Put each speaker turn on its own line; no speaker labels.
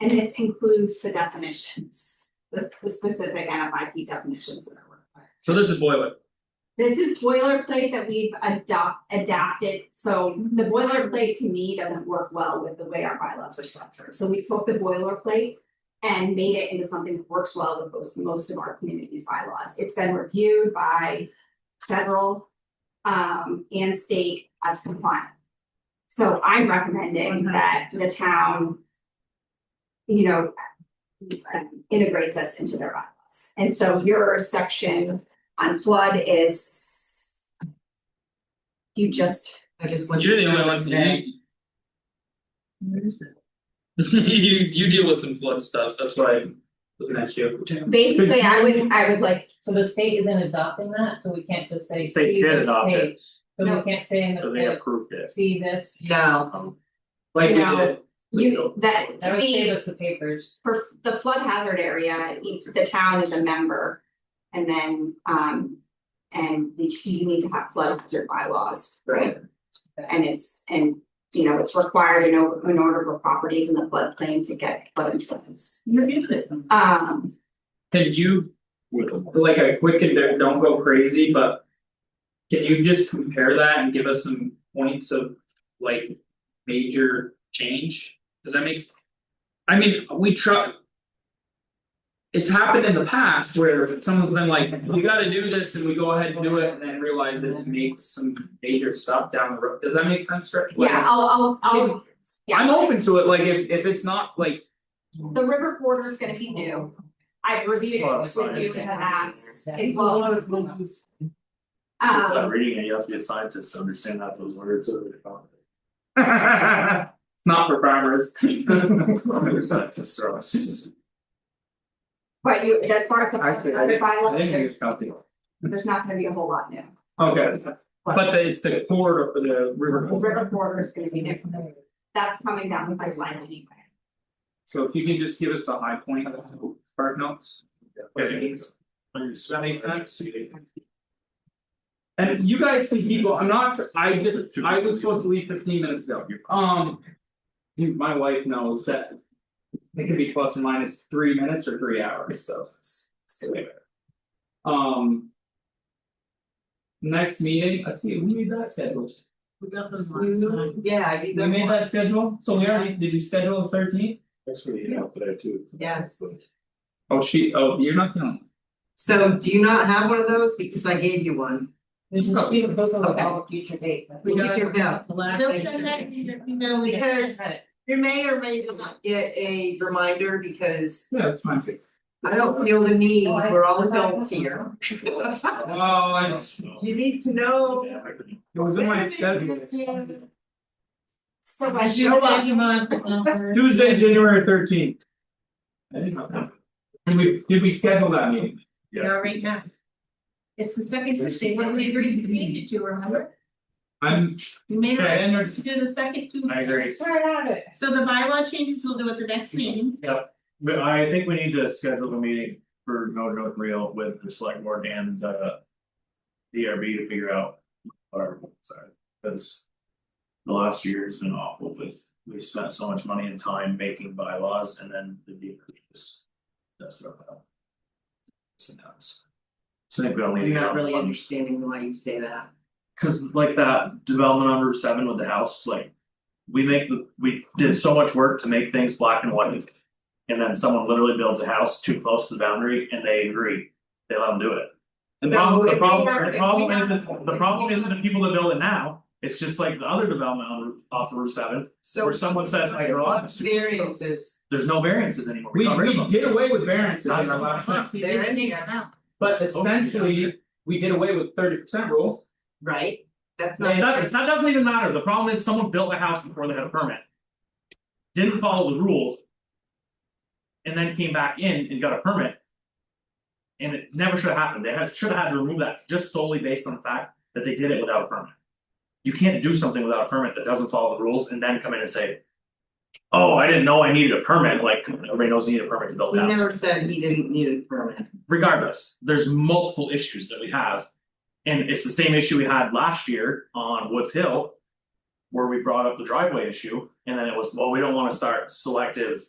And this includes the definitions, the, the specific NFIP definitions that are required.
So this is boiler,
This is boilerplate that we've adopt, adapted, so the boilerplate to me doesn't work well with the way our bylaws are structured, so we took the boilerplate. And made it into something that works well with most, most of our community's bylaws, it's been reviewed by federal. um, and state as compliant. So I'm recommending that the town. You know. Integrate this into their bylaws, and so your section on flood is. You just,
I just went.
you're the
through
only
it
one
today.
that you. You you deal with some flood stuff, that's why I'm looking at you.
basically, I would, I would like,
So the state isn't adopting that, so we can't just say.
The state
see
did
this
adopt it.
page. So
No.
we can't say in the,
So they
page,
approved this.
see this,
No,
Like we
you know,
did,
you, that
that
to
would save
me,
us the papers.
for f- the flood hazard area, each, the town is a member. And then, um, and the- you need to have flood hazard bylaws, right? And it's, and, you know, it's required in order, in order for properties in the floodplain to get flood insurance.
You're good.
Um,
can you, like a quick, and don't- don't go crazy, but. Can you just compare that and give us some points of like major change, does that make? s- I mean, we try. It's happened in the past where someone's been like, we gotta do this and we go ahead and do it and then realize that it makes some major stuff down the road, does that make sense, Rich? Like,
Yeah, I'll, I'll, I'll, yeah.
I'm open to it, like if if it's not like,
The river corridor is gonna be new. I've reviewed it with you in the past. It will-
It's not
Um,
reading it, you have to be a scientist to understand that those words are.
it's not for primers.
They're scientists are us.
but you, as far as the
Actually,
other bylaw,
I think
there's,
it's something.
there's not gonna be a whole lot new.
Okay, but the- it's the core of the river,
The river corridor is gonna be new. That's coming down the pipeline anyway.
so if you can just give us the high point of the part notes.
Does
that make sense? And you guys can keep, go- I'm not, I just, I was supposed to leave fifteen minutes ago, um. you- my wife knows that. It could be plus or minus three minutes or three hours, so it's. it's too late. Um. Next meeting, let's see, we made that schedule.
we got those lines on. Yeah, I did
We
that
made
one.
that schedule, so we already, did you schedule the 13th?
Thanks for the email today too.
Yes,
Oh, she, oh, you're not the only. one.
so do you not have one of those? Because I gave you one.
There's a sheet of paper with
Okay.
all future dates. I
We
think.
got your bill.
The last
Don't
thing-
send that Because You may or may not get a reminder because
Yeah, that's fine.
I don't feel the need, we're all adults here.
Oh, I just,
You need to know.
it was in my schedule.
So I show up,
Tuesday, January thirteenth. I didn't know that. Did we, did we schedule that meeting?
right now.
It's the second Tuesday, what we agreed to meet it to, remember?
I'm,
We made
Okay, and
it
there's-
to do the second Tuesday.
I agree.
Swear it.
So the bylaw changes we'll do at the next meeting.
But I think we need to schedule a meeting for no joke real with the select board and uh. DRB to figure out. Our, sorry, because. The last year's been awful with, we spent so much money and time making bylaws and then the DRB just. That's their problem. It's nuts. So I think we all need
I'm
to.
not really
understand.
understanding why you say that.
Cause like that development on Route seven with the house, like. We make the, we did so much work to make things black and white. And then someone literally builds a house too close to the boundary and they agree, they let them do it. The
No,
problem,
if
the
we
problem,
have-
the
if
problem
we have-
isn't, the
if
problem
we
isn't the people that build it now, it's just like the other development on Route- off of Route seven,
So.
Or someone says, "My garage is too close."
Variances,
there's no variances anymore.
We,
got rid of
we
them.
did away with variances in our last one,
We
There
did
is-
take that out.
but essentially, we did away with thirty percent rule.
right? That's not.
That doesn't, that doesn't even matter, the problem is someone built a house before they had a permit. Didn't follow the rules. And then came back in and got a permit. And it never should have happened, they had, should have had to remove that just solely based on the fact that they did it without a permit. You can't do something without a permit that doesn't follow the rules and then come in and say. Oh, I didn't know I needed a permit, like everybody knows you need a permit to build
He
a house
never said he didn't need a permit.
regardless, there's multiple issues that we have. And it's the same issue we had last year on Woods Hill. Where we brought up the driveway issue and then it was, well, we don't wanna start selective